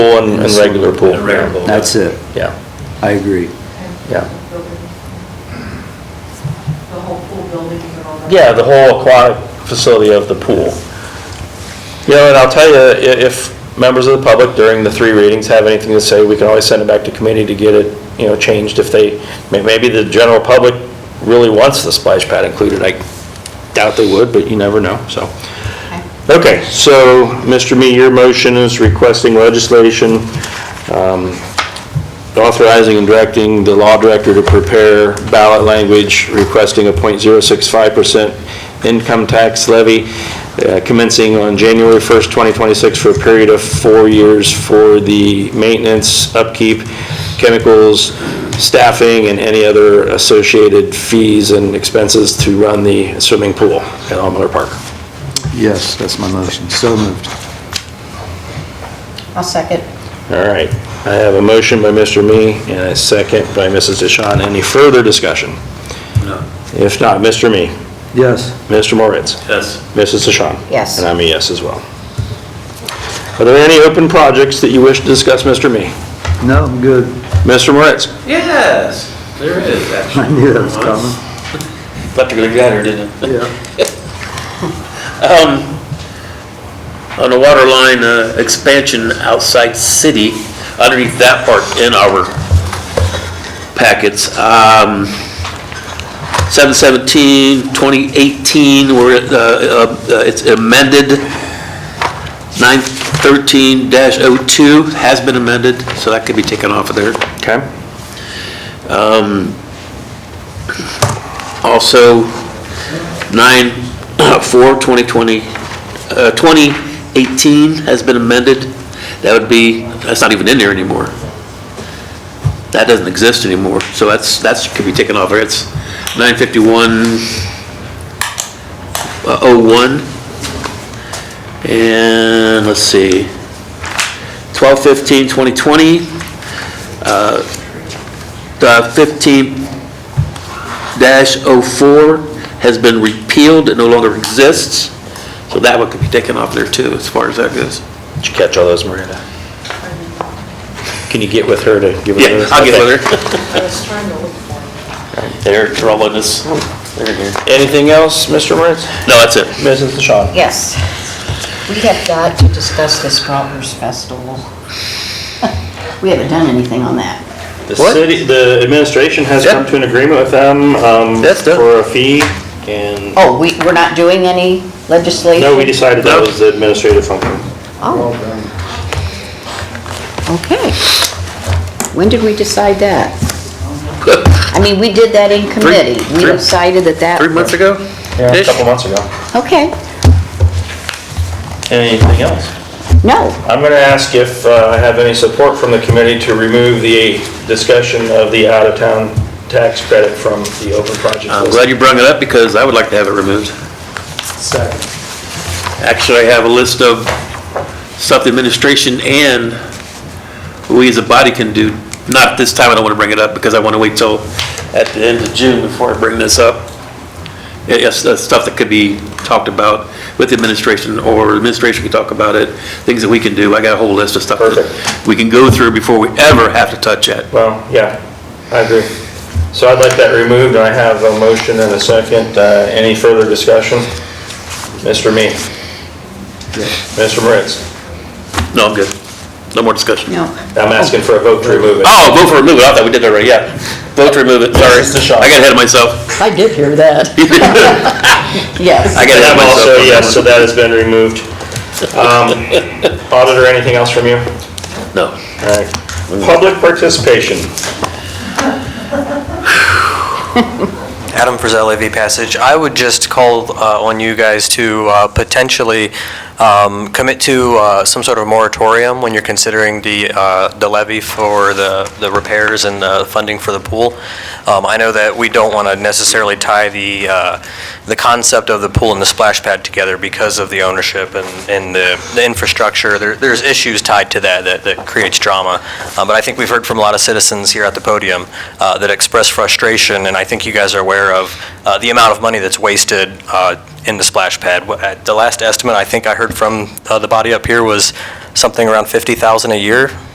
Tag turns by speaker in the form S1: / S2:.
S1: pool and, and regular pool.
S2: And regular pool.
S3: That's it.
S1: Yeah,
S3: I agree.
S1: Yeah.
S4: The whole pool building and all that.
S1: yeah, the whole aquatic facility of the pool. You know, and I'll tell you, i- if members of the public during the three readings have anything to say, we can always send it back to committee to get it, you know, changed if they, may- maybe the general public really wants the splash pad included. I doubt they would, but you never know, so. Okay, so, Mr. Me, your motion is requesting legislation um, authorizing and directing the law director to prepare ballot language requesting a .065% income tax levy uh, commencing on January 1st, 2026 for a period of four years for the maintenance, upkeep, chemicals, staffing, and any other associated fees and expenses to run the swimming pool at All Miller Park.
S3: Yes, that's my motion. So moved.
S5: I'll second.
S1: All right, I have a motion by Mr. Me and a second by Mrs. DeShawn. Any further discussion?
S2: No.
S1: If not, Mr. Me,
S3: Yes.
S1: Mr. Moritz,
S2: Yes.
S1: Mrs. DeShawn.
S5: Yes.
S1: And I'm a yes as well. Are there any open projects that you wish to discuss, Mr. Me?
S3: No, I'm good.
S1: Mr. Moritz?
S2: Yes, there is, actually.
S3: I knew that was coming.
S2: Thought you would've got her, didn't you?
S3: Yeah.
S2: Um, on the water line, uh, expansion outside city, underneath that part in our packets, um, 717, 2018, where, it, uh, uh, it's amended, 913-02 has been amended, so that could be taken off of there.
S1: Okay.
S2: Also, 9/4/2020, uh, 2018 has been amended. That would be, that's not even in there anymore. That doesn't exist anymore, so that's, that's, could be taken off there. It's 951, uh, 01. And, let's see, 12/15, 2020, uh, the 15 dash oh four has been repealed, it no longer exists, so that one could be taken off there too, as far as that goes.
S1: Did you catch all those, Miranda? Can you get with her to give her
S2: Yeah,
S1: those?
S2: I'll get with her.
S4: I was trying to look for it.
S2: They're trolling us. They're here.
S1: Anything else, Mr. Moritz?
S2: No, that's it.
S1: Mrs. DeShawn?
S5: Yes. We have got to discuss this Scalpers Festival. We haven't done anything on that.
S1: The
S2: What?
S1: city, the administration has
S2: Yeah.
S1: come to an agreement with them um,
S2: That's done.
S1: for a fee, and,
S5: Oh, we, we're not doing any legislation?
S1: no, we decided that
S2: No.
S1: was the administrative function.
S5: Oh. Okay. When did we decide that? I mean, we did that in committee. We
S2: three-
S5: decided that that...
S2: Three months ago?
S1: A
S2: Ish?
S1: couple months ago.
S5: Okay.
S1: Anything else?
S5: No.
S1: I'm going to ask if uh, I have any support from the committee to remove the discussion of the out-of-town tax credit from the open project
S2: I'm
S1: list.
S2: glad you brought it up because I would like to have it removed. Actually, I have a list of stuff the administration and we as a body can do. Not this time, I don't want to bring it up because I want to wait till at the end of June before I bring this up. Yeah, Yes, that's stuff that could be talked about with the administration or administration can talk about it, things that we can do. I got a whole list of stuff that
S1: Perfect.
S2: we can go through before we ever have to touch it.
S1: Well, yeah, I agree. So I'd like that removed, and I have a motion and a second. Uh, Any further discussion? Mr. Me? Mr. Moritz?
S2: No, I'm good. No more discussion.
S5: No.
S1: I'm asking for a vote to remove it.
S2: Oh, vote for remove it, I thought we did that already, yeah. Vote to remove it, sorry.
S1: Yes, it's a shot.
S2: I got ahead of myself.
S5: I did hear that. Yes.
S2: I
S1: And
S2: got ahead
S1: I'm
S2: of
S1: also,
S2: myself. on that
S1: yes, so
S2: one.
S1: that has been removed. Um, Auditor, anything else from you?
S2: No.
S1: All right. Public participation.
S6: Adam Frisell, AV Passage. I would just call uh, on you guys to uh, potentially um, commit to uh, some sort of moratorium when you're considering the uh, the levy for the the repairs and the funding for the pool. Um, I know that we don't want to necessarily tie the uh, the concept of the pool and the splash pad together because of the ownership and and the the infrastructure. There- There's issues tied to that that that creates drama. Uh, But I think we've heard from a lot of citizens here at the podium uh, that express frustration, and I think you guys are aware of uh, the amount of money that's wasted uh, in the splash pad. Wh- at The last estimate I think I heard from uh, the body up here was something around 50,000 a year